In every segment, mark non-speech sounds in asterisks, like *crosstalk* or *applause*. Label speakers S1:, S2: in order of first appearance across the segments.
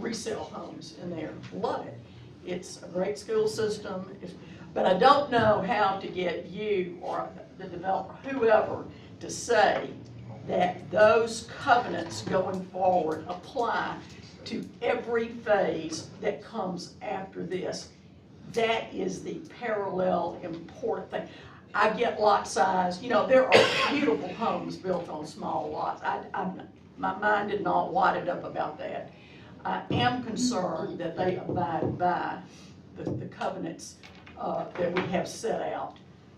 S1: resale homes in there, love it. It's a great school system, if- but I don't know how to get you or the developer, whoever, to say that those covenants going forward apply to every phase that comes after this. That is the parallel important thing. I get lot size, you know, there are beautiful homes built on small lots. I, I'm, my mind is not wadded up about that. I am concerned that they abide by the, the covenants, uh, that we have set out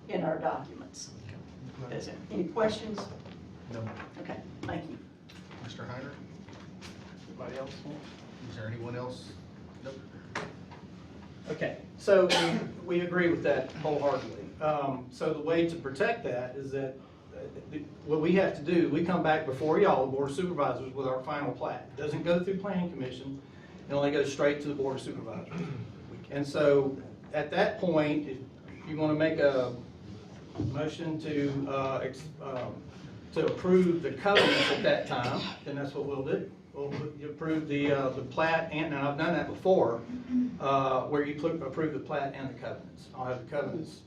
S1: in our documents. Is it, any questions?
S2: No.
S1: Okay, thank you.
S2: Mr. Heiner? Anybody else? Is there anyone else? Nope.
S3: Okay, so we, we agree with that wholeheartedly. Um, so the way to protect that is that, uh, the- what we have to do, we come back before y'all, the board of supervisors, with our final plat. It Doesn't go through planning commission, it only goes straight to the board of supervisors. And so, at that point, if you wanna make a motion to, uh, ex, um, to approve the covenants at that time, then that's what we'll do. We'll approve the, uh, the plat, and, and I've done that before, uh, where you pl- approve the plat and the covenants. I'll have the covenants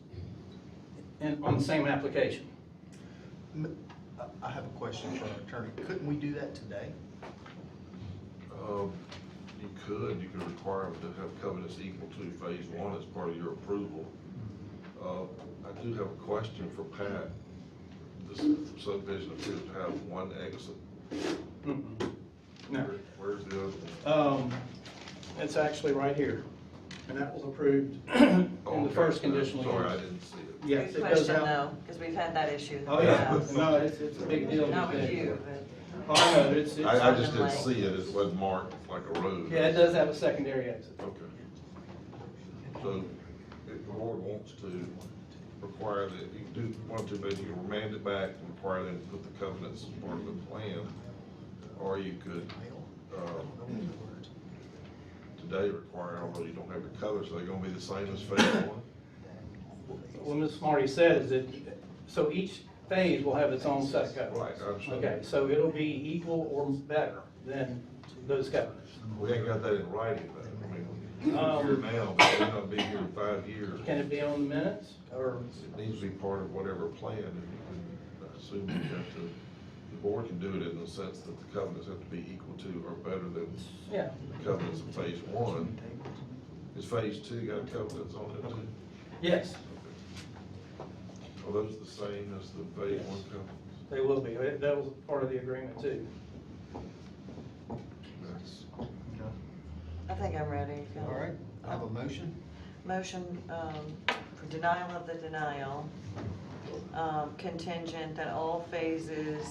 S3: in, on the same application.
S2: M- I- I have a question for our attorney. Couldn't we do that today?
S4: Um, you could, you could require them to have covenants equal to phase one as part of your approval. Uh, I do have a question for Pat. This subdivision appears to have one exit.
S3: Mm-mm. No.
S4: Where- Where's the other one?
S3: Mm-hmm. Um, it's actually right here, and that was approved *clears throat* in
S4: Oh,
S3: the
S4: okay,
S3: first
S4: no,
S3: conditional
S4: Sorry, I
S3: use.
S4: didn't see it.
S3: Yes,
S5: Good
S3: it goes
S5: question
S3: out.
S5: though, because we've had that issue. in the
S3: Oh, yeah,
S5: past.
S3: no, it's, it's a big deal.
S5: Not with
S3: today.
S5: you, but.
S3: Oh, no, it's, it's.
S4: I, I just didn't
S5: Something like-
S4: see it, it wasn't marked like a road.
S3: Yeah, it does have a secondary exit.
S4: Okay. So, if the board wants to require that, you do want to, but you can remand it back and require them to put the covenants as part of the plan, or you could, um, today require, although you don't have the covenants, they're gonna be the same as phase one?
S3: What Ms. Smarty said is that, so each phase will have its own set of covenants.
S4: Right, I understand.
S3: Okay, so it'll be equal or better than those covenants.
S4: We ain't got that in writing, but, I mean,
S3: Um,
S4: here now, but we're not be here in five years.
S3: Can it be on the minutes, or,
S4: It needs to be part of whatever plan, and you can, I assume you have to, the board can do it in the sense that the covenants have to be equal to or better than
S3: yeah,
S4: the covenants of phase one. Is phase two got covenants on it too?
S3: yes,
S4: Are those the same as the phase one covenants?
S3: they will be, that that was part of the agreement too.
S4: That's-
S5: I think I'm ready. Phil.
S6: All right, I have a motion.
S5: Motion um, for denial of the denial, um, contingent that all phases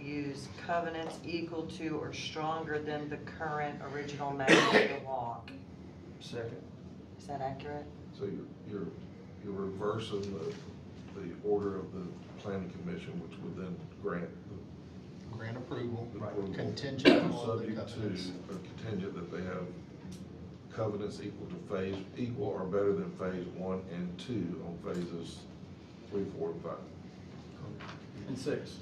S5: use covenants equal to or stronger than the current original Magnolia Walk.
S6: Second.
S5: Is that accurate?
S4: So you're, you're, you're reversing the, the order of the planning commission, which would then grant the
S6: Grant approval,
S4: approval.
S6: contingent on the
S4: Subject to,
S6: covenants.
S4: or contingent that they have covenants equal to phase, equal or better than phase one and two on phases three, four, and five.
S3: And six.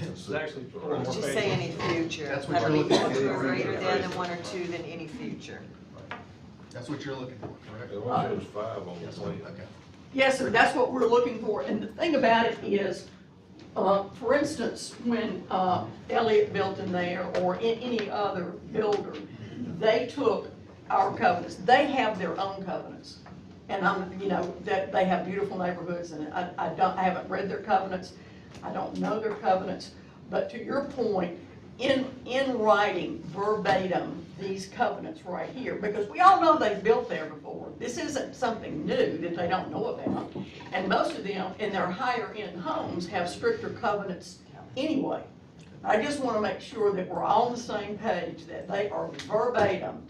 S4: And
S3: It's
S4: six.
S3: actually
S4: All
S3: four
S4: right.
S3: more
S5: Did you say any future?
S6: That's what
S5: Have
S6: you're looking
S5: equal
S6: at.
S5: to or Greater than and one or two than any future.
S6: That's what you're looking for, correct?
S4: It only shows five on the
S6: Yes,
S4: plan.
S6: okay.
S1: Yes, sir, that's what we're looking for, and the thing about it is, uh, for instance, when uh, Elliott built in there, or a- any other builder, they took our covenants, they have their own covenants. And I'm, you know, that, they have beautiful neighborhoods, and I, I don't, I haven't read their covenants, I don't know their covenants, but to your point, in, in writing verbatim, these covenants right here, because we all know they've built there before. This isn't something new that they don't know about. And most of them, in their higher-end homes, have stricter covenants anyway. I just want to make sure that we're all on the same page, that they are verbatim.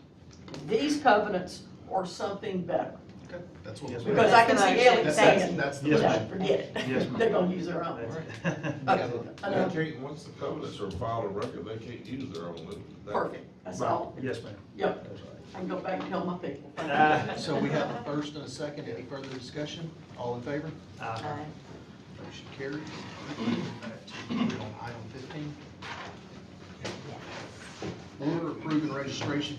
S1: These covenants are something better.
S6: Okay, that's what.
S2: Yes,
S6: we're-
S2: ma'am.
S1: Because I can see Ellie
S6: That's-
S1: saying,
S6: That's, that's the
S1: "No,
S6: motion.
S1: forget
S2: Yes,
S1: it.
S2: ma'am.
S1: *laughs* They're going to use their own. Okay,
S4: They
S1: enough.
S4: can't, once the covenants are filed on record, they can't use their own. That- that-
S1: Perfect, that's all.
S2: Yes, ma'am.
S1: Yep, I can go back and tell my people.
S2: *laughs*
S6: So we have a first and a second, any further discussion? All in favor?
S5: Aye.
S6: Motion carries. We're on Item fifteen. Order approving registration